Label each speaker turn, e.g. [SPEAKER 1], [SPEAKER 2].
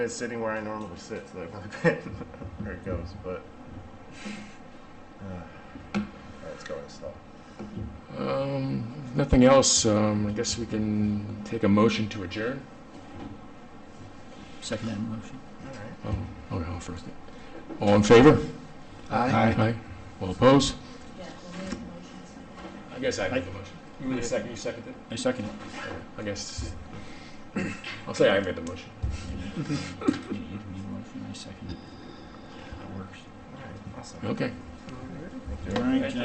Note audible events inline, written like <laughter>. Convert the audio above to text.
[SPEAKER 1] It's sitting where I normally sit, so <laughs> that's my bed. there it goes, but. Uh, it's going slow.
[SPEAKER 2] Um, if nothing else, um, I guess we can take a motion to adjourn.
[SPEAKER 3] Second that motion.
[SPEAKER 1] Alright.
[SPEAKER 2] Oh, oh, no, first. All in favor?
[SPEAKER 3] Aye.
[SPEAKER 2] Aye. All opposed?
[SPEAKER 4] Yeah, we'll make the motion second.
[SPEAKER 2] I guess I
[SPEAKER 3] made
[SPEAKER 2] the motion.
[SPEAKER 3] You made a second.
[SPEAKER 2] You seconded
[SPEAKER 3] I second <laughs> it.
[SPEAKER 2] it? I guess, I'll say I made the motion.
[SPEAKER 3] You made a motion, I second it. That works.
[SPEAKER 1] Alright, awesome.
[SPEAKER 2] Okay.
[SPEAKER 1] Thank you.
[SPEAKER 3] All right,